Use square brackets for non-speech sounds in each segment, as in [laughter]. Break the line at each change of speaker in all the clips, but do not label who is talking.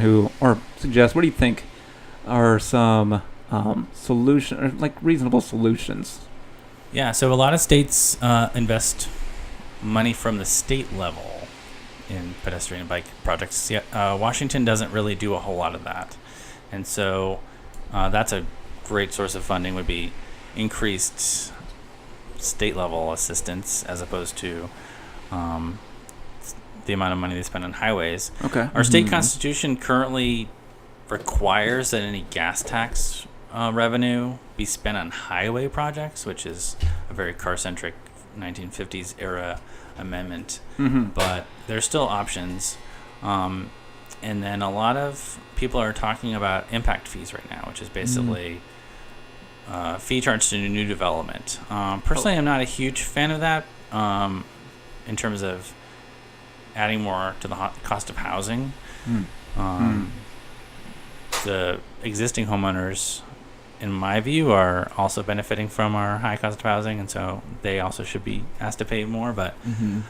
who or suggest what do you think are some um, solution or like reasonable solutions?
Yeah, so a lot of states uh, invest money from the state level in pedestrian and bike projects. Yeah, uh, Washington doesn't really do a whole lot of that, and so uh, that's a great source of funding would be increased state level assistance as opposed to um, s- the amount of money they spend on highways.
Okay.
Our state constitution currently requires that any gas tax uh, revenue be spent on highway projects, which is a very car centric 1950s era amendment.
hmm
But there's still options. Um, and then a lot of people are talking about impact fees right now, which is basically uh, fee charged to new development. Um, personally, I'm not a huge fan of that um, in terms of adding more to the ho- cost of housing
Mm.
um, the existing homeowners in my view are also benefiting from our high cost of housing and so they also should be asked to pay more but
Mm-hmm.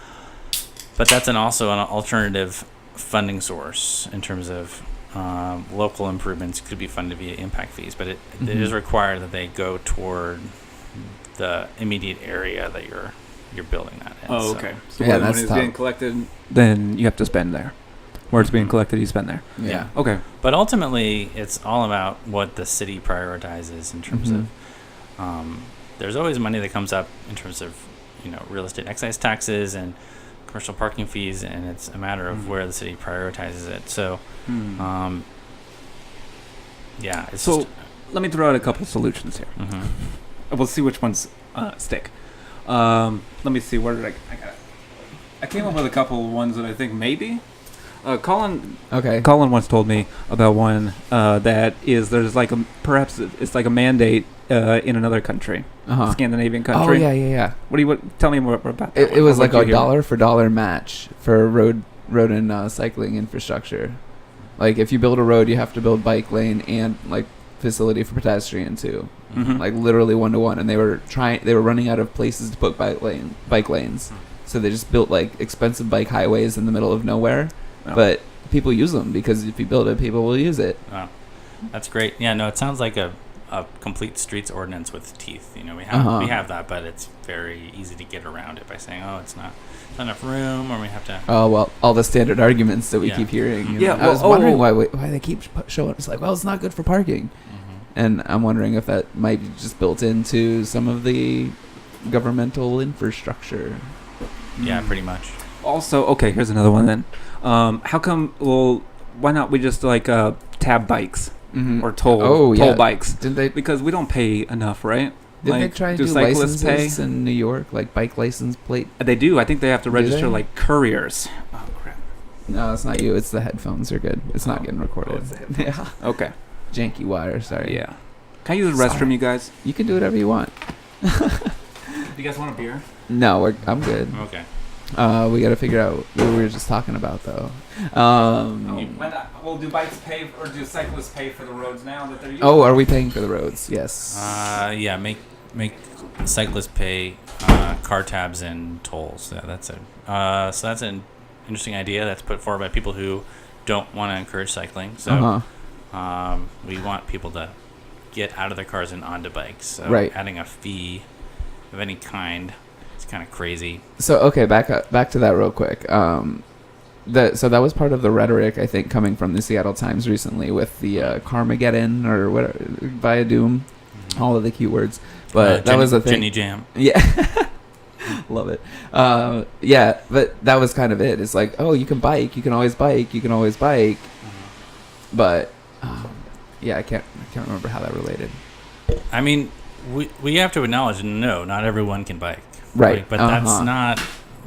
but that's an also an alternative funding source in terms of um, local improvements could be funded via impact fees but it, it
Mm-hmm.
is
Mhm.
required that they go toward the immediate area that you're you're building that in
Oh,
So-
okay. So
Yeah,
when
that's
it's
tough.
being collected, then you have to spend there. Where it's being
Mhm.
collected, you spend there.
Yeah.
Okay.
But ultimately, it's all about what the city prioritizes in terms of. Um, there's always money that comes up in terms of, you know, real estate excise taxes and commercial parking fees, and it's a matter of
Mhm.
where the city prioritizes it. So,
Hmm.
um, yeah, it's
So-
just,
Let me throw out a couple solutions here.
mhm.
We'll see which ones uh, stick. Um, let me see. Where did I? I got. it. I came up with a couple ones that I think maybe. Uh, Colin
Okay.
Colin once told me about one uh, that is there's like a perhaps it's like a mandate uh, in another country,
Uh-huh.
Scandinavian
Oh
country.
yeah, yeah, yeah.
What do you what, tell me more about that?
It,
one.
it was
I'll let
like a
you hear.
dollar for dollar match for road road and uh, cycling infrastructure. Like if you build a road, you have to build bike lane and like facility for pedestrian too.
Mm-hmm.
Mhm.
Like literally one to one, and they were trying. They were running out of places to put bike lane bike lanes, so they just built like expensive bike highways in the middle of nowhere.
Oh.
But people use them because if you build it, people will use it.
Wow. That's great. Yeah, no, it sounds like a, a complete streets ordinance with teeth. You know, we have
Uh-huh.
we have that, but it's very easy to get around it by saying, oh, it's not, it's not enough room, or we have to.
Oh well, all the standard arguments that we
Yeah.
keep hearing. you
Yeah,
know. I
well,
was wondering
oh.
why we, why they keep pu- showing. It's like, well, it's not good for parking.
Mhm.
and I'm wondering if that might be just built into some of the governmental infrastructure.
Yeah, pretty much.
Also, okay, here's another one then. Um, how come? Well, why not we just like uh, tab bikes
Mm-hmm.
or toll
Oh,
toll
yeah.
bikes
didn't they?
because we don't pay enough, right?
Didn't
Like,
they try and
do
do,
cyclists
licenses
pay? Uh,
in New York, like bike license plate?
They do. I think they have to
Do
register
they?
like couriers. Oh crap.
No, it's not you. It's the headphones are good. It's not
Oh.
getting
Oh,
recorded.
it's the
[laughs] yeah,
Okay.
janky wire. Sorry.
Yeah. Can I use the restroom,
Sorry.
you guys?
you can do whatever you want.
Do you guys want a beer?
No, we're, I'm good.
Okay.
Uh, we got to figure out what we were just talking about, though. Um,
Oh, well, do bikes pay or do cyclists pay for the roads now that they're using?
oh, are we paying for the roads? Yes.
Uh, yeah, make make cyclists pay uh, car tabs and tolls. Yeah, that's a uh, so that's an interesting idea that's put forward by people who don't want to encourage cycling. So
Uh-huh.
um, we want people to get out of their cars and onto bikes. So
Right.
adding a fee of any kind, it's kind of crazy.
So okay, back up, back to that real quick. Um, that so that was part of the rhetoric I think coming from the Seattle Times recently with the uh, Carmageddon or what via Doom, all of the keywords. But
Mm-hmm. Uh,
that
Jenny-
was the thing.
Jenny Jam.
[laughs] Yeah. Love it. Um, yeah, but that was kind of it. It's like, oh, you can bike, you can always bike, you can always bike,
Mm-hmm.
but um, yeah, I can't I can't remember how that related.
I mean, we we have to acknowledge no, not everyone can bike.
Right,
but that's
uh-huh.
not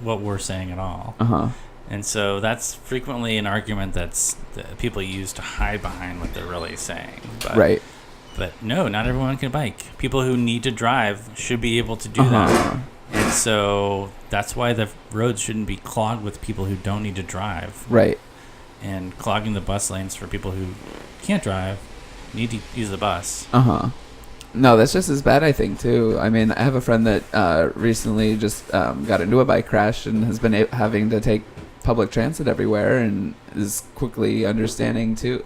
what we're saying at all.
Uh huh.
And so that's frequently an argument that's that people use to hide behind what they're really saying. But,
Right.
But no, not everyone can bike. People who need to drive should be able to do that.
Uh-huh.
And so that's why the roads shouldn't be clogged with people who don't need to drive,
Right.
and clogging the bus lanes for people who can't drive, need to use the bus.
Uh huh. No, that's just as bad, I think, too. I mean, I have a friend that uh, recently just um, got into a bike crash and has been a- having to take public transit everywhere and is quickly understanding too